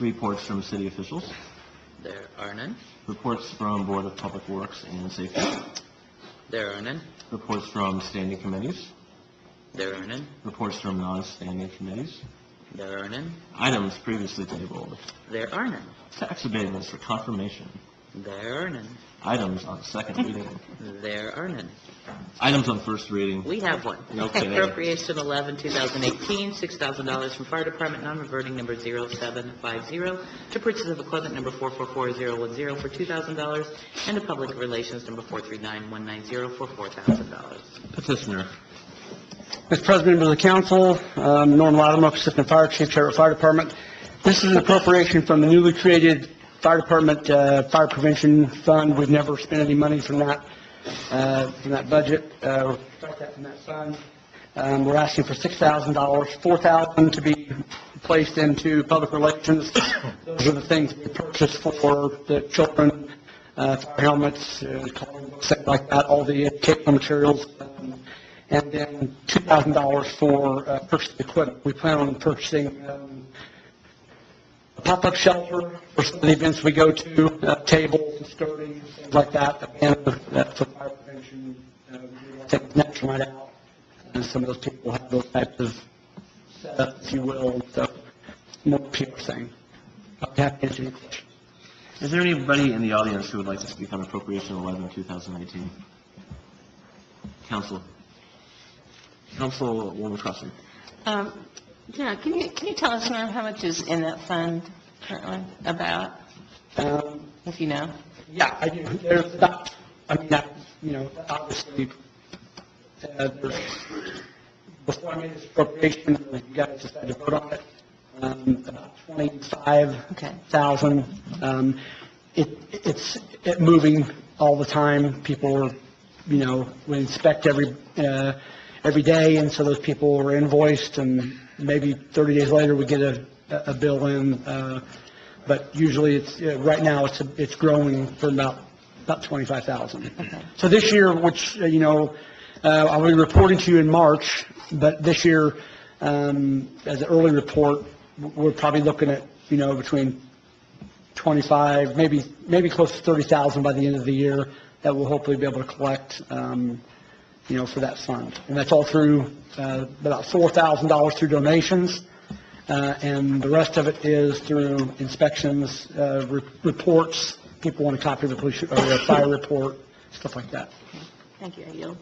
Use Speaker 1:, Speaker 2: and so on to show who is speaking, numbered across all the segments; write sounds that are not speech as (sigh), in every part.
Speaker 1: Reports from city officials,
Speaker 2: There are none.
Speaker 1: reports from Board of Public Works and Safety,
Speaker 2: There are none.
Speaker 1: reports from standing committees,
Speaker 2: There are none.
Speaker 1: reports from non-standing committees,
Speaker 2: There are none.
Speaker 1: items previously tabled,
Speaker 2: There are none.
Speaker 1: tax abatements for confirmation,
Speaker 2: There are none.
Speaker 1: items on second reading,
Speaker 2: There are none.
Speaker 1: items on first reading,
Speaker 2: We have one.
Speaker 1: (laughs) No kidding.
Speaker 2: Appropriation 11, 2018, $6,000 from Fire Department, non-reverting number 0750, to purchase of equipment number 444010 for $2,000, and to public relations number 439190 for $4,000.
Speaker 1: petitioner,
Speaker 3: Mr. President, members of the council, um, Norm Lotimer, Assistant Fire Chief, Charter Fire Department. This is an appropriation from the newly created Fire Department uh, Fire Prevention Fund. We've never spent any money from that, uh, from that budget, uh, or start that from that fund. Um, We're asking for $6,000, $4,000 to be placed into public relations. Those are the things we purchased for the children, uh, fire helmets, uh, coloring books, things like that, all the educational materials. um, and then $2,000 for uh, purchased equipment. We plan on purchasing um, a pop-up shelter for some of the events we go to, uh, tables and skirting, things like that, a banner uh, for fire prevention, uh, we take the next night out, and some of those people have those types of setups, if you will, so more PR thing. I'll be happy to answer any questions.
Speaker 1: is there anybody in the audience who would like to speak on appropriation 11, 2018? Council, Councilwoman Crossen.
Speaker 4: Um, Yeah, can you, can you tell us, Norm, how much is in that fund currently, about,
Speaker 3: Um,
Speaker 4: if you know?
Speaker 3: Yeah, I do. There's about, I mean, that, you know, obviously, uh, there's, before I made this appropriation, you guys decided to vote on it, um, about
Speaker 4: Okay.
Speaker 3: 25,000. Um, It, it's it moving all the time. People are, you know, we inspect every, uh, every day, and so those people are invoiced, and maybe 30 days later, we get a, a bill in. uh, But usually, it's, uh, right now, it's, it's growing for about, about 25,000. So this year, which, uh, you know, uh, I'll be reporting to you in March, but this year, um, as an early report, we're probably looking at, you know, between 25, maybe, maybe close to 30,000 by the end of the year that we'll hopefully be able to collect, um, you know, for that fund. And that's all through, uh, about $4,000 through donations, uh, and the rest of it is through inspections, uh, re- reports, people want a copy of the police, or the fire report, stuff like that.
Speaker 4: Thank you, I yield.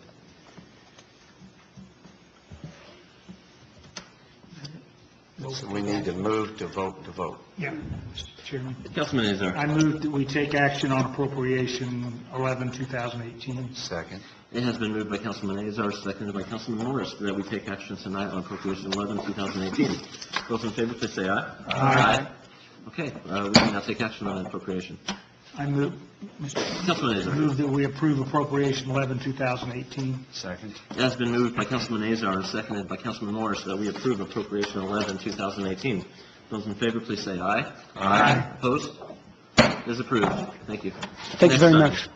Speaker 5: So we need to move to vote to vote.
Speaker 6: Yeah, Mr. Chairman.
Speaker 1: Councilman Azar.
Speaker 6: I move that we take action on appropriation 11, 2018.
Speaker 5: Second.
Speaker 1: It has been moved by Councilman Azar, seconded by Councilman Morris, that we take action tonight on Appropriation 11, 2018. Those in favor, please say aye.
Speaker 6: Aye.
Speaker 1: Okay, uh, we can now take action on appropriation.
Speaker 6: I move, Mr.
Speaker 1: Councilman
Speaker 6: Chairman,
Speaker 1: Azar.
Speaker 6: move that we approve appropriation 11, 2018.
Speaker 5: Second.
Speaker 1: It has been moved by Councilman Azar and seconded by Councilman Morris that we approve Appropriation 11, 2018. Those in favor, please say aye. Aye. Opposed? It is approved. Thank you.
Speaker 3: Thank you very
Speaker 1: Next
Speaker 3: much.
Speaker 1: item.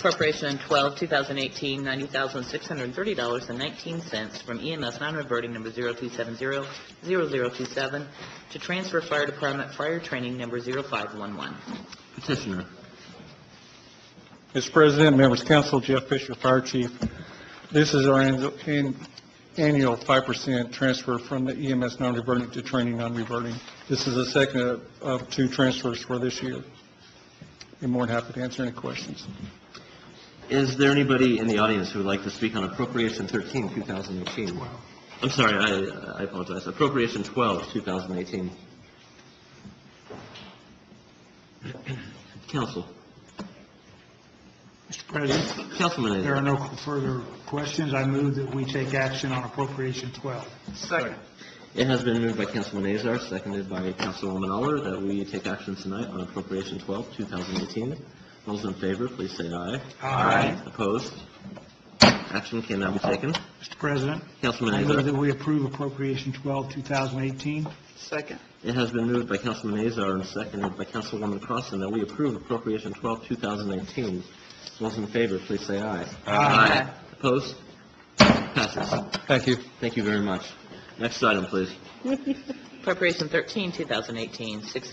Speaker 2: Corporation 12, 2018, $90,630.19 from EMS non-reverting number 0270-0027 to transfer Fire Department Fire Training number 0511.
Speaker 1: Petitioner.
Speaker 7: Mr. President, members of council, Jeff Fisher, Fire Chief. This is our annual- an- annual 5% transfer from the EMS non-reverting to training non-reverting. This is the second of- of two transfers for this year. Be more than happy to answer any questions.
Speaker 1: Is there anybody in the audience who would like to speak on Appropriation 13, 2018? I'm sorry, I I apologize. Appropriation 12, 2018. Council,
Speaker 6: Mr. President,
Speaker 1: Councilman
Speaker 6: there are
Speaker 1: Azar.
Speaker 6: no further questions. I move that we take action on appropriation 12.
Speaker 5: Second.
Speaker 1: It has been moved by Councilman Azar, seconded by Councilwoman Aller, that we take action tonight on Appropriation 12, 2018. Those in favor, please say aye.
Speaker 6: Aye.
Speaker 1: Opposed? Action can now be taken.
Speaker 6: Mr. President,
Speaker 1: Councilman
Speaker 6: I
Speaker 1: Azar.
Speaker 6: move that we approve appropriation 12, 2018.
Speaker 5: Second.
Speaker 1: It has been moved by Councilman Azar and seconded by Councilwoman Crossen that we approve appropriation 12, 2018. Those in favor, please say aye. Aye. Opposed? Passes.
Speaker 7: Thank you.
Speaker 1: Thank you very much. Next item, please.
Speaker 2: Corporation 13, 2018, 6